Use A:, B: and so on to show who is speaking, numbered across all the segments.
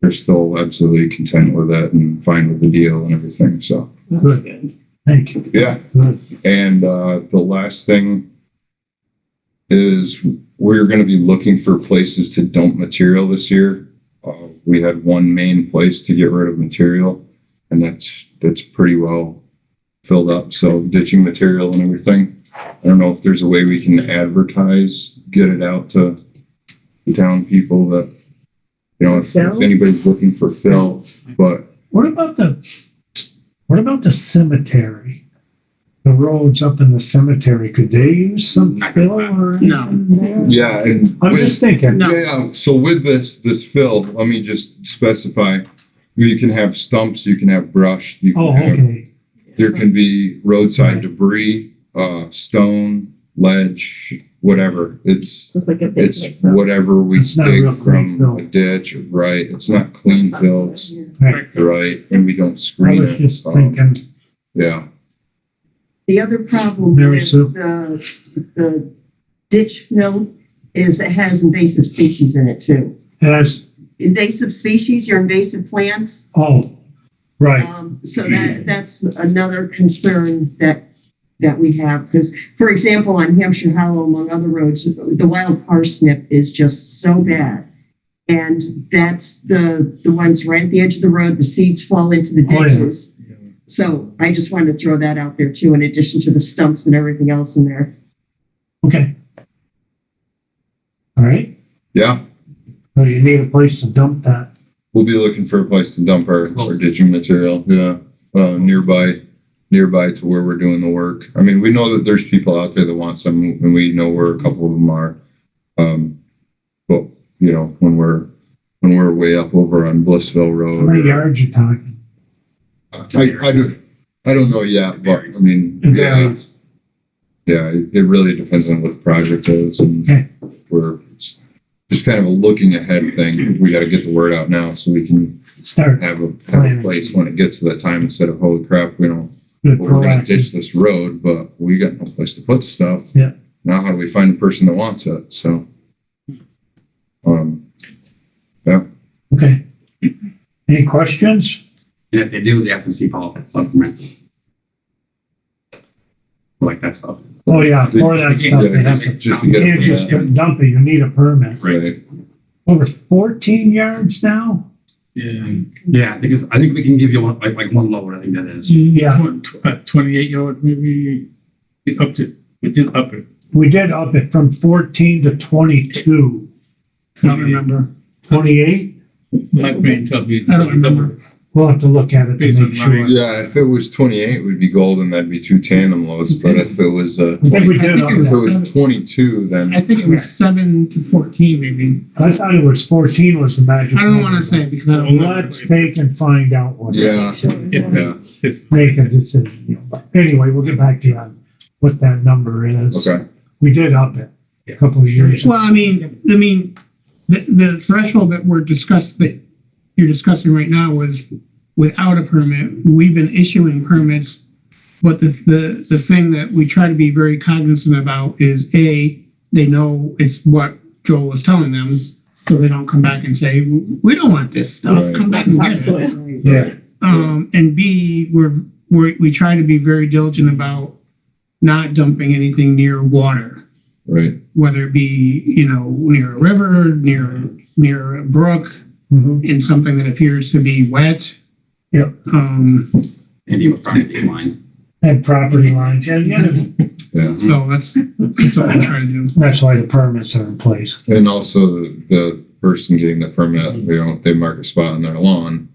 A: they're still absolutely content with it and fine with the deal and everything. So
B: That's
C: Good.
B: good.
C: Thank you.
A: yeah.
C: Good.
A: And uh, the last thing is we're going to be looking for places to dump material this year. Uh, we had one main place to get rid of material, and that's that's pretty well filled up. So ditching material and everything. I don't know if there's a way we can advertise, get it out to the town people that you know if, if
B: Fill?
A: anybody's looking for fill, but
C: What about the, what about the cemetery? The roads up in the cemetery, could they use some fill or?
B: No.
C: anything there?
A: yeah, and
C: I'm
A: with-
C: just thinking.
B: No.
A: Yeah, so with this, this fill, let me just specify, you can have stumps, you can have brush, you
C: Oh,
A: can have,
C: okay.
A: there can be roadside debris, uh, stone, ledge, whatever. It's,
B: It's like a big.
A: it's whatever we
C: It's not a real
A: dig
C: clean
A: from
C: fill.
A: a ditch, right? It's not clean fill, it's,
C: Right.
A: right, and we don't
C: I
A: screen
C: was
A: it.
C: just
A: Um,
C: thinking,
A: Yeah,
D: The other problem
C: Mary
D: with
C: Sue?
D: the, the ditch fill is it has invasive species in it too.
C: as,
D: Invasive species, your invasive plants,
C: oh, right,
D: um, so that, that's another concern that, that we have. Because, for example, on Hampshire Hollow, among other roads, the wild parsnip is just so bad. And that's the, the ones right at the edge of the road, the seeds fall into the
C: Oh, yeah.
D: ditches. So I just wanted to throw that out there too, in addition to the stumps and everything else in there.
C: okay. All right,
A: yeah,
C: so you need a place to dump that.
A: we'll be looking for a place to dump our, our ditching material, yeah, uh, nearby. nearby to where we're doing the work. I mean, we know that there's people out there that want some, and we know where a couple of them are. Um, but you know, when we're when we're way up over on Blissville
C: How many
A: Road,
C: yards you talking?
A: I, I don't I don't know yet, but I mean,
C: It
A: yeah,
C: varies.
A: yeah, it it really depends on what the project is and
C: Okay.
A: where. It's just kind of a looking ahead thing. We got to get the word out now so we can
C: Start,
A: have a have a place when it gets to that time instead of holy crap, we don't
C: good
A: well, we're gonna
C: proactive.
A: ditch this road, but we got no place to put the stuff.
C: Yeah.
A: Now how do we find the person that wants it? So. Um,
C: Okay. Any questions?
E: And if they do, they have to see Paul supplement. Like that stuff.
C: Oh, yeah, for that
E: They
C: stuff,
E: can't-
C: they have to.
A: just to get
C: You
A: it
C: just
A: from
C: couldn't dump it, you need a permit.
A: that, right?
C: Over fourteen yards now?
F: Yeah,
E: Yeah, I think it's, I think we can give you one, like, like one load, I think that is.
C: Yeah,
F: tw- tw- uh, twenty-eight yard, maybe, we upped it, we did up it.
C: we did up it from fourteen to twenty-two.
F: I don't remember,
C: Twenty-eight?
F: my brain tells me.
C: I don't remember. We'll have to look at it
F: Based
C: to
F: on
C: make sure.
F: my-
A: Yeah, if it was twenty-eight, we'd be golden. That'd be two tandem loads, but if it was, uh,
C: I think we
A: 20
C: did up
A: if it
C: that.
A: was twenty-two, then.
G: I think it was seven to fourteen, maybe.
C: I thought it was fourteen was the magic.
G: I don't want
C: number.
G: to say because I don't know.
C: Let's take and find out what. it
A: Yeah,
C: is.
A: yeah,
F: uh,
C: Make a decision. Anyway, we'll get back to you on what that number is.
A: okay.
C: We did up it a couple of years. ago.
G: Well, I mean, I mean, the, the threshold that we're discussed, that you're discussing right now was without a permit. We've been issuing permits. But the, the, the thing that we try to be very cognizant about is A, they know it's what Joel was telling them. So they don't come back and say, we don't want this stuff.
A: Right.
G: Come back and get it.
C: Yeah,
G: Um, and B, we're, we're, we try to be very diligent about not dumping anything near water,
A: Right,
G: whether it be, you know, near a river, near, near a brook,
C: Mhm.
G: in something that appears to be wet.
C: Yep.
G: Um,
E: Maybe with property lines.
C: and property lines, and yeah,
A: yeah.
G: so that's, that's what we try to do.
C: that's why the permits are in place.
A: And also the, the person getting the permit, they don't, they mark a spot on their lawn.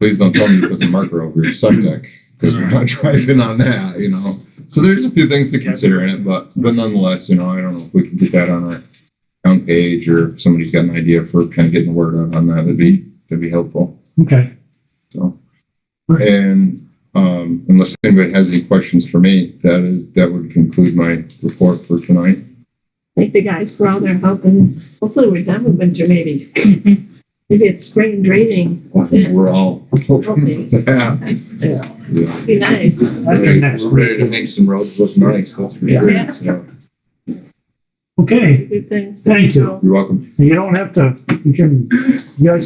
A: Please don't tell me to put the marker over your septic because we're not driving on that, you know? So there's a few things to consider in it, but, but nonetheless, you know, I don't know if we can get that on our town page or if somebody's got an idea for kind of getting the word out on that, that'd be, that'd be helpful.
C: Okay.
A: So. And, um, unless anybody has any questions for me, that is, that would conclude my report for tonight.
B: Thank the guys for all their help and hopefully we're done with winter maybe. Maybe it's spring draining. That's it.
A: We're all hoping for that.
B: Yeah.
A: Yeah.
B: Be nice.
C: That's our next
A: We're ready to make some roads look nice, that's for sure.
B: Yeah.
A: So,
C: Okay,
B: Good things.
C: Thank you.
A: You're welcome.
C: you don't have to, you can, you guys